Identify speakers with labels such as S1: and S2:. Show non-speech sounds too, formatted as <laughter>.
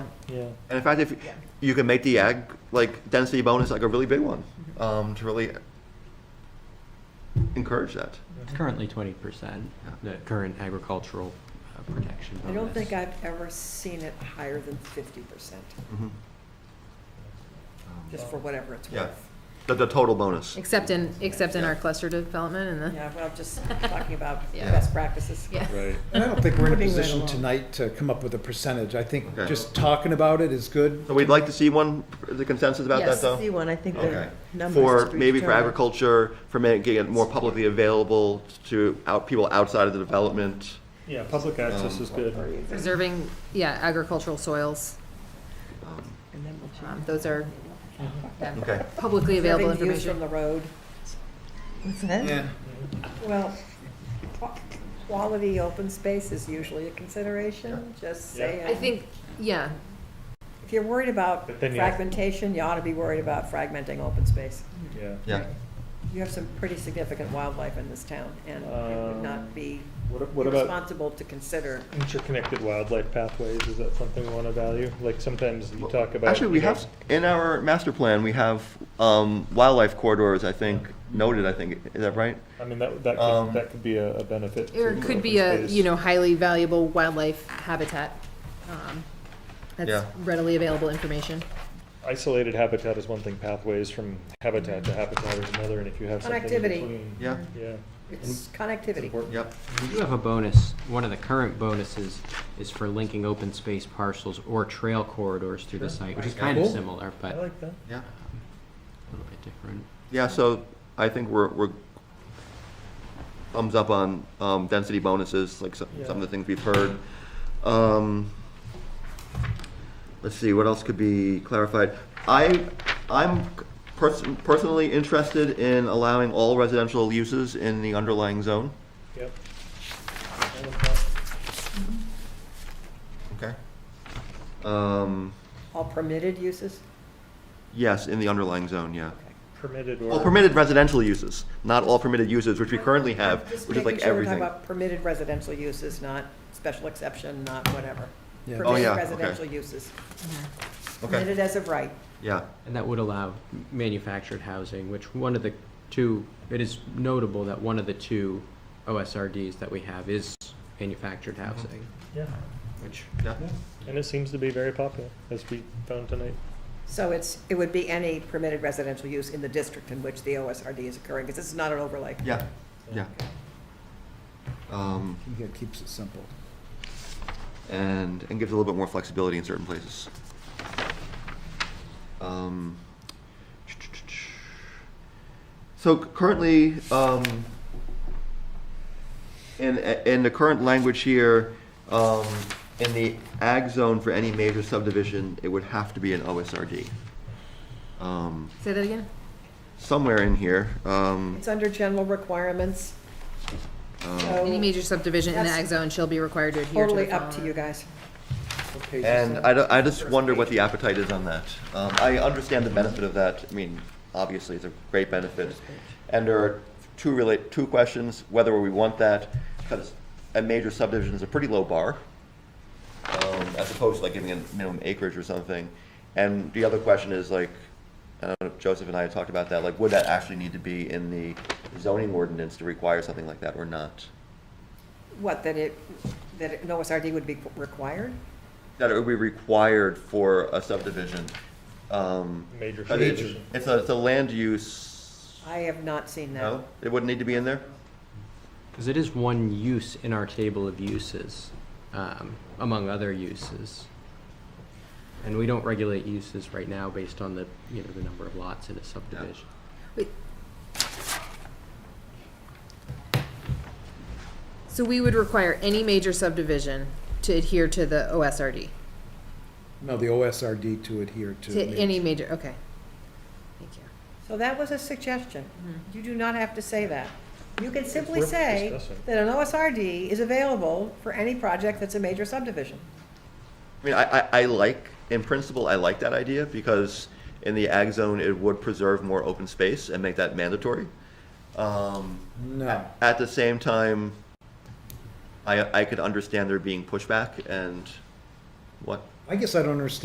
S1: yeah.
S2: And in fact, if you can make the ag like density bonus like a really big one um, to really encourage that.
S3: It's currently twenty percent, uh,
S2: Yeah.
S3: the current agricultural uh, protection
S4: I don't
S3: bonus.
S4: think I've ever seen it higher than fifty percent,
S2: Um,
S4: just for whatever it's
S2: Yeah.
S4: worth.
S2: the, the total bonus.
S5: Except in, except in our cluster development and the.
S4: Yeah, well, just talking about
S5: <laughs> Yeah.
S4: best practices.
S5: Yeah.
S6: Right.
S7: And I don't think we're in a
S4: Moving right
S7: position
S4: along.
S7: tonight to come up with a percentage. I think
S2: Okay.
S7: just talking about it is good.
S2: So we'd like to see one, the consensus about that
S5: Yes.
S2: though?
S8: See one, I think
S2: Okay.
S8: the numbers.
S2: For,
S8: to be
S2: maybe for
S8: determined.
S2: agriculture, for making it more publicly available to out, people outside of the development.
S1: Yeah, public access is good.
S4: Or even-
S5: Preserving, yeah, agricultural soils,
S2: Um,
S8: And then we'll
S5: um,
S8: change.
S5: those are yeah,
S2: Okay.
S5: publicly available
S4: Serving views From
S5: information.
S4: the road,
S8: What's that?
S4: well, qua- quality open space is usually a consideration, just
S1: Yeah.
S4: saying.
S5: I think, yeah,
S4: If you're worried about
S1: But then you have-
S4: fragmentation, you ought to be worried about fragmenting open space.
S1: Yeah.
S2: Yeah,
S4: You have some pretty significant wildlife in this town, and it would
S1: Um,
S4: not be
S1: What, what about
S4: responsible to consider.
S1: interconnected wildlife pathways? Is that something we want to value? Like sometimes you talk about.
S2: actually, we
S1: you know,
S2: have, in our master plan, we have, um, wildlife corridors, I think, noted, I think, is that right?
S1: I mean, that, that
S2: Um,
S1: could, that could be a a benefit.
S5: or
S1: to
S5: it could
S1: open
S5: be a,
S1: space.
S5: you know, highly valuable wildlife habitat. um, That's
S2: Yeah.
S5: readily available information.
S1: Isolated habitat is one thing, pathways from habitat to habitat is another, and if you have something in
S4: Connectivity.
S1: between.
S2: Yeah,
S1: Yeah.
S4: It's
S1: It's
S4: connectivity.
S1: important.
S2: yep,
S3: We do have a bonus, one of the current bonuses is for linking open space parcels or trail corridors through the
S1: Sure.
S3: site, which is
S2: Right.
S3: kind of
S7: Cool.
S3: similar,
S1: I
S3: but a
S1: like that.
S2: yeah.
S3: little bit different.
S2: Yeah, so I think we're, we're thumbs up on um, density bonuses, like some, some of the things we've heard. Um, Let's see, what else could be clarified? I, I'm pers- personally interested in allowing all residential uses in the underlying zone.
S1: Yep.
S2: Okay. Um,
S4: All permitted uses?
S2: yes, in the underlying zone, yeah.
S1: Permitted
S2: All
S1: or,
S2: permitted residential uses, not all permitted uses, which we currently have,
S4: Just
S2: which is like
S4: making sure we're talking
S2: everything.
S4: about Permitted residential uses, not special exception, not whatever.
S7: Yeah.
S2: Oh, yeah,
S4: Permitted
S2: okay.
S4: residential uses,
S2: Okay,
S4: permitted as of right.
S2: yeah.
S3: And that would allow manufactured housing, which one of the two, it is notable that one of the two OSRDs that we have is manufactured
S1: Mm-hmm.
S3: housing,
S1: yeah,
S3: which
S2: Yeah.
S1: and it seems to be very popular, as we found tonight.
S4: So it's, it would be any permitted residential use in the district in which the OSRD is occurring, because this is not an overlay.
S2: Yeah, yeah. Um,
S7: I think it keeps it simple.
S2: and, and gives a little bit more flexibility in certain places. Um, So currently, um, in, in the current language here, um, in the ag zone for any major subdivision, it would have to be an OSRD. Um,
S5: Say that again?
S2: somewhere in here, um,
S4: It's under general requirements,
S2: um,
S5: Any
S4: so
S5: major subdivision in the
S4: That's
S5: ag zone shall be required to adhere to the
S4: totally up to
S5: following.
S4: you guys.
S2: And uh, I, don't- I just wonder what the appetite is on that. Um, I understand the benefit of that. I mean, obviously, it's a great benefit. And there are two relate, two questions, whether we want that, because a major subdivision is a pretty low bar, um, as opposed to like giving a minimum acreage or something. And the other question is like, I don't know, if Joseph and I had talked about that, like, would that actually need to be in the zoning ordinance to require something like that or not?
S4: What, that it, that an OSRD would be required?
S2: that it would be required for a subdivision. um,
S1: Major
S2: I mean,
S1: subdivision.
S2: It's a, it's a land use,
S4: I have not seen that.
S2: no? It wouldn't need to be in there?
S3: Because it is one use in our table of uses, um, among other uses. And we don't regulate uses right now based on the, you know, the number of lots in a subdivision.
S5: So we would require any major subdivision to adhere to the OSRD,
S7: No, the OSRD to adhere to.
S5: to any
S7: major-
S5: major, okay. Thank you.
S4: So that was a suggestion. You do not have to say that. You can simply
S1: worth
S4: say
S1: discussing.
S4: that an OSRD is available for any project that's a major subdivision.
S2: I mean, I, I, I like, in principle, I like that idea because in the ag zone, it would preserve more open space and make that mandatory. Um,
S7: No.
S2: At the same time, I, I could understand there being pushback and what
S7: I guess I don't understand